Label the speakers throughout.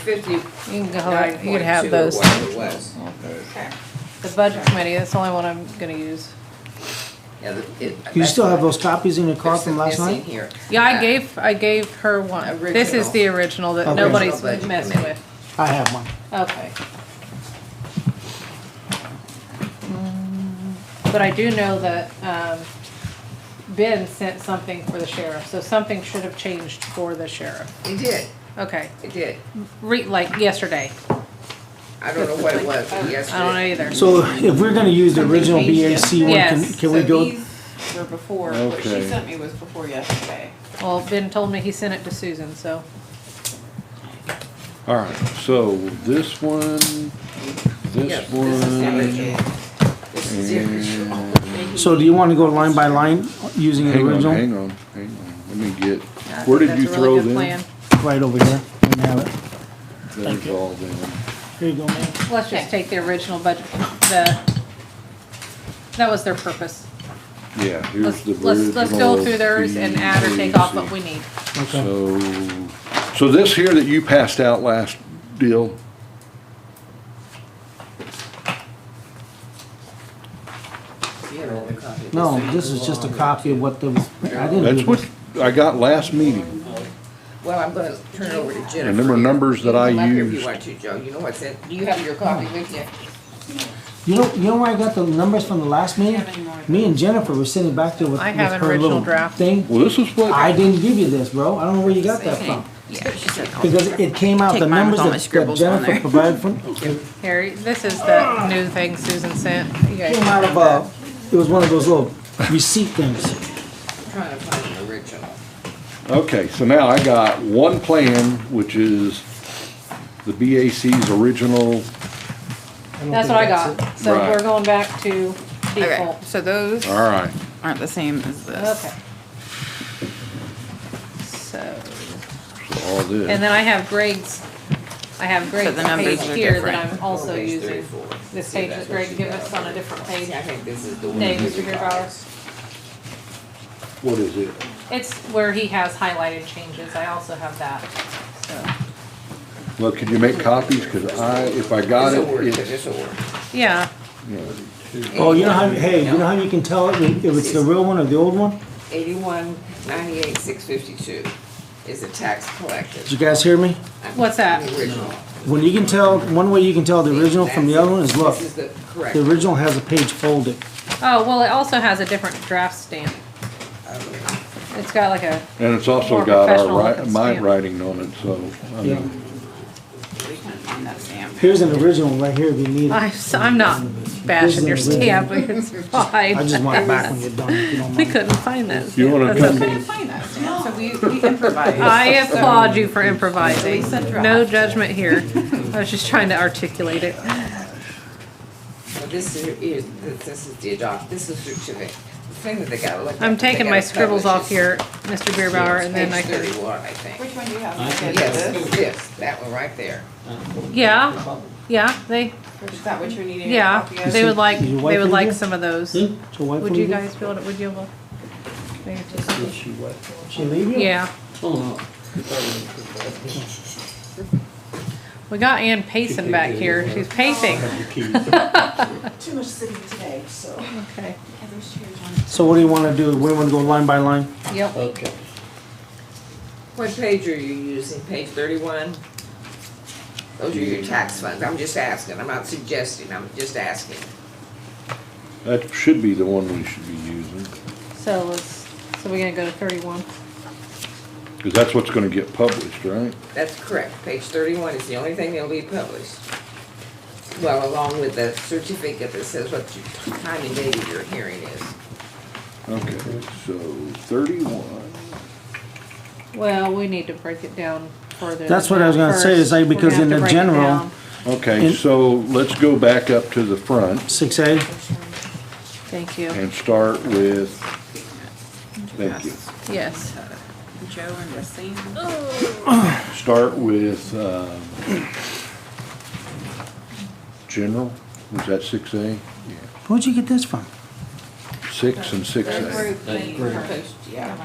Speaker 1: fifty.
Speaker 2: You can go, you can have those.
Speaker 1: Whatever it was.
Speaker 3: Okay.
Speaker 4: Okay.
Speaker 2: The budget committee, that's the only one I'm gonna use.
Speaker 1: Yeah, the- it-
Speaker 5: You
Speaker 1: that's
Speaker 5: still have
Speaker 1: what-
Speaker 5: those copies in your car
Speaker 1: there's
Speaker 5: from
Speaker 1: some
Speaker 5: last
Speaker 1: missing
Speaker 5: night?
Speaker 1: here.
Speaker 2: Yeah, I
Speaker 1: Uh,
Speaker 2: gave, I gave her one. This is the original that
Speaker 5: Original.
Speaker 2: nobody's
Speaker 1: Original budget
Speaker 2: messed
Speaker 1: committee.
Speaker 2: with.
Speaker 5: I have one.
Speaker 2: Okay. Mm, But I do know that, um, Ben sent something for the sheriff, so something should have changed for the sheriff.
Speaker 1: It did,
Speaker 2: Okay,
Speaker 1: it did.
Speaker 2: re, like yesterday.
Speaker 1: I don't know what it was but yesterday.
Speaker 2: I don't know either.
Speaker 5: So if we're gonna use the original BAC one, can,
Speaker 2: Yes.
Speaker 5: can we
Speaker 4: So
Speaker 5: go?
Speaker 4: these were before, what she
Speaker 3: Okay.
Speaker 4: sent me was before yesterday.
Speaker 2: Well, Ben told me he sent it to Susan, so.
Speaker 3: All right, so this one,
Speaker 1: Yes,
Speaker 3: this
Speaker 1: this is the
Speaker 3: one.
Speaker 1: original. This is the original.
Speaker 3: and-
Speaker 5: So do you wanna go line by line using the
Speaker 3: Hang on,
Speaker 5: original?
Speaker 3: hang on, hang on. Let me get,
Speaker 2: I
Speaker 3: where
Speaker 2: think
Speaker 3: did you
Speaker 2: that's a really
Speaker 3: throw
Speaker 2: good
Speaker 3: them?
Speaker 2: plan.
Speaker 5: Right over here. Let me have it.
Speaker 3: There's all them.
Speaker 5: Here you go, man.
Speaker 2: Let's just take the original budget, the, that was their purpose.
Speaker 3: Yeah, here's
Speaker 2: Let's,
Speaker 3: the
Speaker 2: let's,
Speaker 3: original.
Speaker 2: let's go through theirs and add or take off what we
Speaker 3: BAC.
Speaker 2: need.
Speaker 5: Okay.
Speaker 3: So, so this here that you passed out last deal,
Speaker 1: You had all the copies.
Speaker 5: No, this is just a copy of what the, I didn't
Speaker 3: that's
Speaker 5: do
Speaker 3: what
Speaker 5: this.
Speaker 3: I got last meeting.
Speaker 1: Well, I'm gonna turn it over to Jennifer.
Speaker 3: And them are numbers that I
Speaker 1: You can look If
Speaker 3: used.
Speaker 1: you want to, Joe, you know what's in, do you have your copy with you?
Speaker 5: You know, you know where I got the numbers from the last meeting?
Speaker 4: Have any more?
Speaker 5: Me and Jennifer were sitting back there with with
Speaker 2: I have an
Speaker 5: her
Speaker 2: original
Speaker 5: little
Speaker 2: draft.
Speaker 5: thing.
Speaker 3: Well, this is what.
Speaker 5: I didn't give you this, bro. I don't know where you got that from. Because it came out, the
Speaker 6: Take mine with
Speaker 5: numbers
Speaker 6: all my
Speaker 5: that- that
Speaker 6: scribbles on
Speaker 5: Jennifer
Speaker 6: there.
Speaker 5: provided from,
Speaker 2: Here, this is the new thing Susan sent. You guys
Speaker 5: came out of, uh, it was one of those little receipt things.
Speaker 1: I'm Trying to find the original.
Speaker 3: Okay, so now I got one plan, which is the BAC's original,
Speaker 2: That's what I got. So
Speaker 3: Right.
Speaker 2: we're going back to
Speaker 6: Okay,
Speaker 2: default.
Speaker 6: so those
Speaker 3: all right.
Speaker 6: aren't the same as this.
Speaker 2: Okay. So,
Speaker 3: So all
Speaker 2: and
Speaker 3: this,
Speaker 2: then I have Greg's, I have Greg's
Speaker 6: the numbers
Speaker 2: page
Speaker 6: are
Speaker 2: here that
Speaker 6: different.
Speaker 2: I'm also
Speaker 1: Page
Speaker 2: using.
Speaker 1: 34.
Speaker 2: This
Speaker 1: See,
Speaker 2: page
Speaker 1: that's
Speaker 2: that
Speaker 1: what
Speaker 2: Greg
Speaker 1: she
Speaker 2: gave
Speaker 1: got.
Speaker 2: us on a different page.
Speaker 1: See, I think this is the one.
Speaker 2: Dave,
Speaker 1: you
Speaker 2: is your hair
Speaker 1: got.
Speaker 2: ours?
Speaker 3: what is it?
Speaker 2: It's where he has highlighted changes. I also have that, so.
Speaker 3: Well, could you make copies? Cause I, if I got
Speaker 1: This'll work,
Speaker 3: it, it's,
Speaker 1: this'll work.
Speaker 2: Yeah,
Speaker 5: Oh, you know how, hey, you know how you can tell it- if it's the real one or the old one?
Speaker 1: Eighty-one ninety-eight six fifty-two is the tax collected.
Speaker 5: Did you guys hear me?
Speaker 2: What's that?
Speaker 1: The original.
Speaker 5: When you can tell, one way you can tell the original from the other one is look,
Speaker 1: This is the correct.
Speaker 5: the original has a page folded.
Speaker 2: Oh, well, it also has a different draft stamp. It's got like a,
Speaker 3: and it's also
Speaker 2: More
Speaker 3: got
Speaker 2: professional
Speaker 3: our ri-
Speaker 2: looking
Speaker 3: my
Speaker 2: stamp.
Speaker 3: writing on it, so, uh, I
Speaker 5: Yeah.
Speaker 3: mean,
Speaker 6: We couldn't find that stamp.
Speaker 5: Here's an original right here if you need
Speaker 2: I'm,
Speaker 5: it.
Speaker 2: s- I'm not bashing your stamp, it's
Speaker 5: I just want it
Speaker 2: fine.
Speaker 5: back when you're done, if you don't
Speaker 2: We
Speaker 5: mind.
Speaker 2: couldn't find that.
Speaker 3: You
Speaker 2: stamp.
Speaker 3: wanna
Speaker 2: That's
Speaker 3: come-
Speaker 2: okay.
Speaker 6: Couldn't find that stamp, so we, we improvised.
Speaker 2: I
Speaker 6: So-
Speaker 2: applaud you for improvising.
Speaker 6: Lisa draft.
Speaker 2: No judgment here. I was just trying to articulate it.
Speaker 1: So This is, is- this is the adopt, this is certificate. The thing that they gotta look at.
Speaker 2: I'm
Speaker 1: that they
Speaker 2: taking my
Speaker 1: gotta
Speaker 2: scribbles
Speaker 1: publish
Speaker 2: off
Speaker 1: is-
Speaker 2: here, Mr. Beerbauer,
Speaker 1: Yes,
Speaker 2: and then I
Speaker 1: page
Speaker 2: could,
Speaker 1: thirty-one, I think.
Speaker 4: Which one do you have? Okay,
Speaker 1: Yes,
Speaker 4: this?
Speaker 1: this, that one right there.
Speaker 2: yeah, yeah, they,
Speaker 4: Which- Is that what you're needing? a
Speaker 2: yeah,
Speaker 4: copy of?
Speaker 2: they would like,
Speaker 5: Is your wife
Speaker 2: they would
Speaker 5: in
Speaker 2: like
Speaker 5: here?
Speaker 2: some of those.
Speaker 5: See? So why
Speaker 2: Would
Speaker 5: couldn't
Speaker 2: you guys build it, would you able? maybe just-
Speaker 5: She leave you?
Speaker 2: Yeah, we got Ann Payson back here. She's pacing.
Speaker 7: too much sitting today, so.
Speaker 2: Okay,
Speaker 5: So what do you wanna do? We wanna go line by line?
Speaker 2: yep.
Speaker 5: Oh.
Speaker 7: Okay.
Speaker 1: What page are you using? Page thirty-one? Those are your tax funds. I'm just asking. I'm not suggesting. I'm just asking.
Speaker 3: that should be the one we should be using.
Speaker 2: So let's, so we're gonna go to thirty-one.
Speaker 3: Cause that's what's gonna get published, right?
Speaker 1: That's correct. Page thirty-one is the only thing that'll be published. Well, along with the certificate that says what your time and date of your hearing is.
Speaker 3: Okay, so thirty-one.
Speaker 2: Well, we need to break it down further.
Speaker 5: That's
Speaker 2: than
Speaker 5: what I was
Speaker 2: that
Speaker 5: gonna say, is
Speaker 2: first.
Speaker 5: like,
Speaker 2: We're
Speaker 5: because
Speaker 2: gonna
Speaker 5: in
Speaker 2: have
Speaker 5: the
Speaker 2: to break it
Speaker 5: general-
Speaker 2: down.
Speaker 3: Okay,
Speaker 5: And-
Speaker 3: so let's go back up to the front
Speaker 5: Six A?
Speaker 2: Thank you,
Speaker 3: and start with, thank you.
Speaker 2: yes.
Speaker 6: Joe and Racine.
Speaker 3: Start with, um, general, was that six A? Yeah,
Speaker 5: Where'd you get this from?
Speaker 3: six and six A.
Speaker 4: Thank you.
Speaker 1: Post, yeah.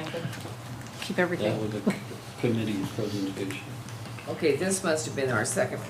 Speaker 2: Keep everything.
Speaker 8: That was a committee presentation.
Speaker 1: Okay, this must have been our second